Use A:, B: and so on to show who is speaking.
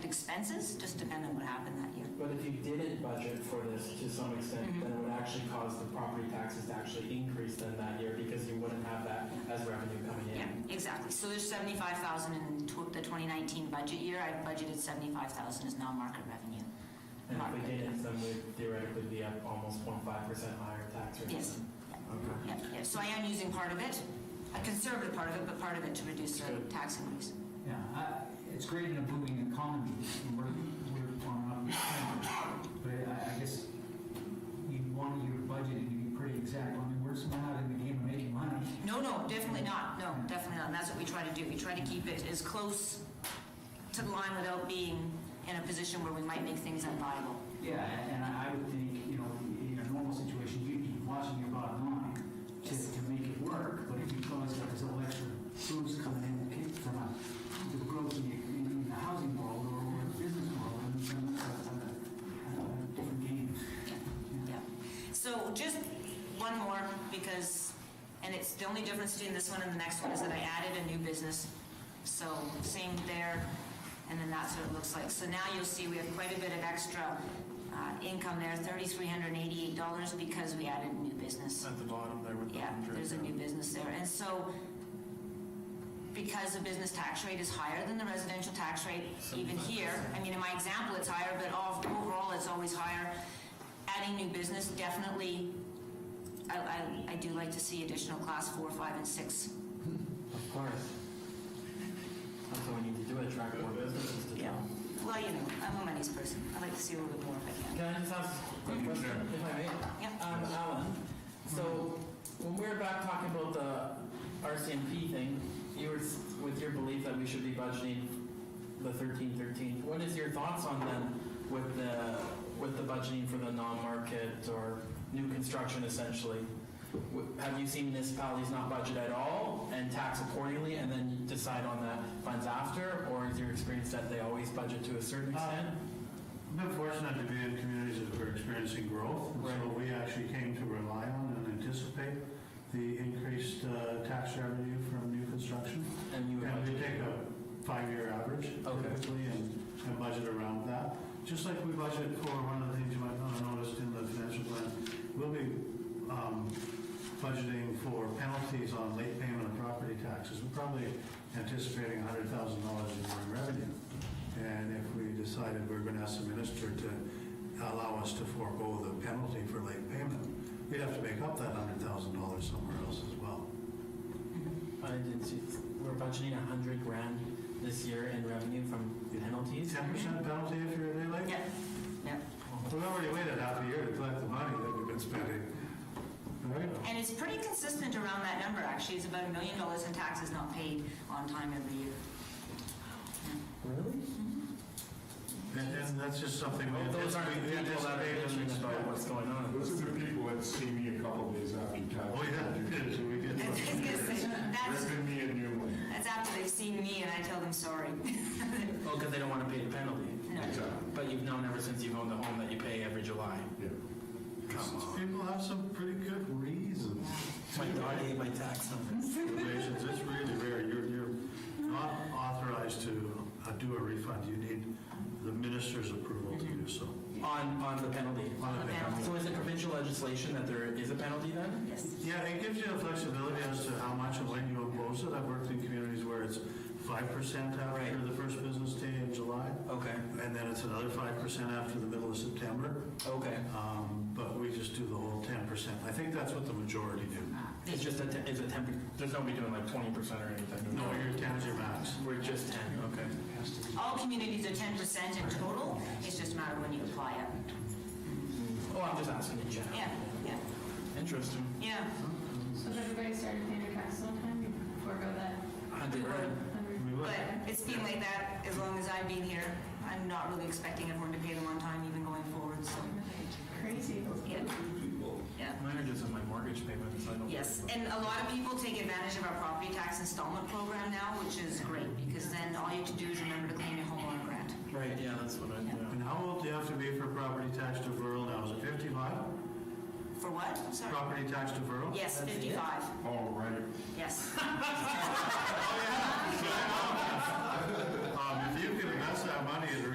A: expenses, just depending on what happened that year.
B: But if you didn't budget for this to some extent,
A: Mm-hmm.
B: then it would actually cause the property taxes to actually increase then that year because you wouldn't have that as revenue coming
A: Yeah,
B: in.
A: exactly. So there's seventy-five thousand in tw- the twenty nineteen budget year. I budgeted seventy-five thousand as non-market revenue.
B: And
A: Not
B: if we
A: really.
B: didn't, then we'd theoretically be up almost 0.5% higher tax rate.
A: Yes.
B: Okay.
A: Yeah, yeah. So I am using part of it, a conservative part of it, but part of it to reduce the tax increase.
C: Yeah, I- it's great in a booming economy, and we're, we're on up, but I, I guess you want your budget to be pretty exact, I mean, we're still not in the game of making money.
A: No, no, definitely not. No, definitely not. And that's what we try to do. We try to keep it as close to the line without being in a position where we might make things unviable.
C: Yeah, and I I would think, you know, in a normal situation, you'd be watching your bottom line to,
A: Yes.
C: to make it work, but if you cause like this little extra boost coming in from a, the growth in the, in the housing world or, or the business world, and it's gonna look like a, a different game.
A: Yeah. So just one more, because, and it's, the only difference between this one and the next one is that I added a new business. So same there, and then that's what it looks like. So now you'll see we have quite a bit of extra uh, income there, thirty-three hundred and eighty-eight dollars because we added new business.
D: At the bottom there with the
A: Yeah,
D: hundred.
A: there's a new business there. And so because the business tax rate is higher than the residential tax rate even here, I mean, in my example, it's higher, but all- overall, it's always higher. Adding new business, definitely, I, I, I do like to see additional class four, five, and six.
B: Of course. That's what we need to do, attract more businesses to town.
A: Well, you know, I'm a money's person. I like to see a little bit more if I can.
B: Can I just ask a quick question,
D: Mm-hmm.
B: if I may?
A: Yeah.
B: Um, Alan, so when we were back talking about the RCMP thing, you were s- with your belief that we should be budgeting the thirteen thirteen. What is your thoughts on then with the, with the budgeting for the non-market or new construction essentially? W- Have you seen municipalities not budget at all and tax accordingly and then decide on the funds after? Or is your experience that they always budget to a
D: Uh,
B: certain extent?
D: I've been fortunate to be in communities that were experiencing growth, and so
B: Right.
D: we actually came to rely on and anticipate the increased uh, tax revenue from new construction.
B: And you would
D: And we
B: budget?
D: take a five-year average
B: Okay.
D: typically and and budget around that. Just like we budget for, one of the things you might not have noticed in the financial plan, we'll be um, budgeting for penalties on late payment of property taxes. We're probably anticipating $100,000 in revenue. And if we decided we're going to ask the minister to allow us to forego the penalty for late payment, we'd have to make up that $100,000 somewhere else as well.
B: I did see, we're budgeting a hundred grand this year in revenue from penalties.
D: 10% penalty if you're a day late?
A: Yeah, yeah.
D: We've already waited half a year to collect the money that we've been spending. Right?
A: And it's pretty consistent around that number, actually. It's about a million dollars in taxes not paid on time every year.
B: Really?
D: And, and that's just something we
B: Well, those aren't the
D: anticipate.
B: people that are bitching about what's going on.
E: Those are the people that see me a couple days after tax.
D: Oh, yeah, so we get.
A: It's- it's gonna say, that's-
E: Ripping me a new one.
A: That's after they've seen me and I tell them sorry.
B: Well, because they don't want to pay the penalty.
A: No.
E: Exactly,
B: But you've known ever since you've owned the home that you pay every July.
E: yeah.
B: Come on.
D: People have some pretty good reasons.
B: My God, I hate my tax numbers.
D: Reasons, it's really rare, you're, you're not authorized to uh, do a refund, you need the minister's approval to do so.
A: Mm-hmm.
B: On, on the penalty.
D: On a penalty.
B: So is it provincial legislation that there is a penalty then?
A: Yes.
D: Yeah, it gives you the flexibility as to how much and when you impose it. I've worked in communities where it's five percent after
B: Right.
D: the first business day in July,
B: Okay,
D: and then it's another five percent after the middle of September.
B: okay.
D: Um, But we just do the whole ten percent. I think that's what the majority do.
B: It's just a, te- it's a temp, there's nobody doing like twenty percent or anything.
D: No, your ten's your max.
B: We're just ten, okay.
A: All communities are ten percent in total, it's just a matter of when you apply it.
B: Oh, I'm just asking in general.
A: Yeah, yeah,
B: Interesting.
A: yeah.
F: So if everybody started paying their taxes on time, you forego that
B: Hundred grand.
F: hundred
D: We would.
A: But it's been like that as long as I've been here. I'm not really expecting everyone to pay them on time even going forward, so,
F: crazy.
A: yeah. Yeah.
B: Mine are just on my mortgage payments, I don't.
A: Yes, and a lot of people take advantage of our property tax installment program now, which is great, because then all you have to do is remember to claim your homeowner grant.
B: Right, yeah, that's what I, yeah.
D: And how old do you have to be for property tax deferral now? Is it fifty-five?
A: For what? I'm Sorry?
D: Property tax deferral?
A: Yes,
B: That's it?
A: fifty-five,
E: All right.
A: yes.
D: Um, If you can invest that money in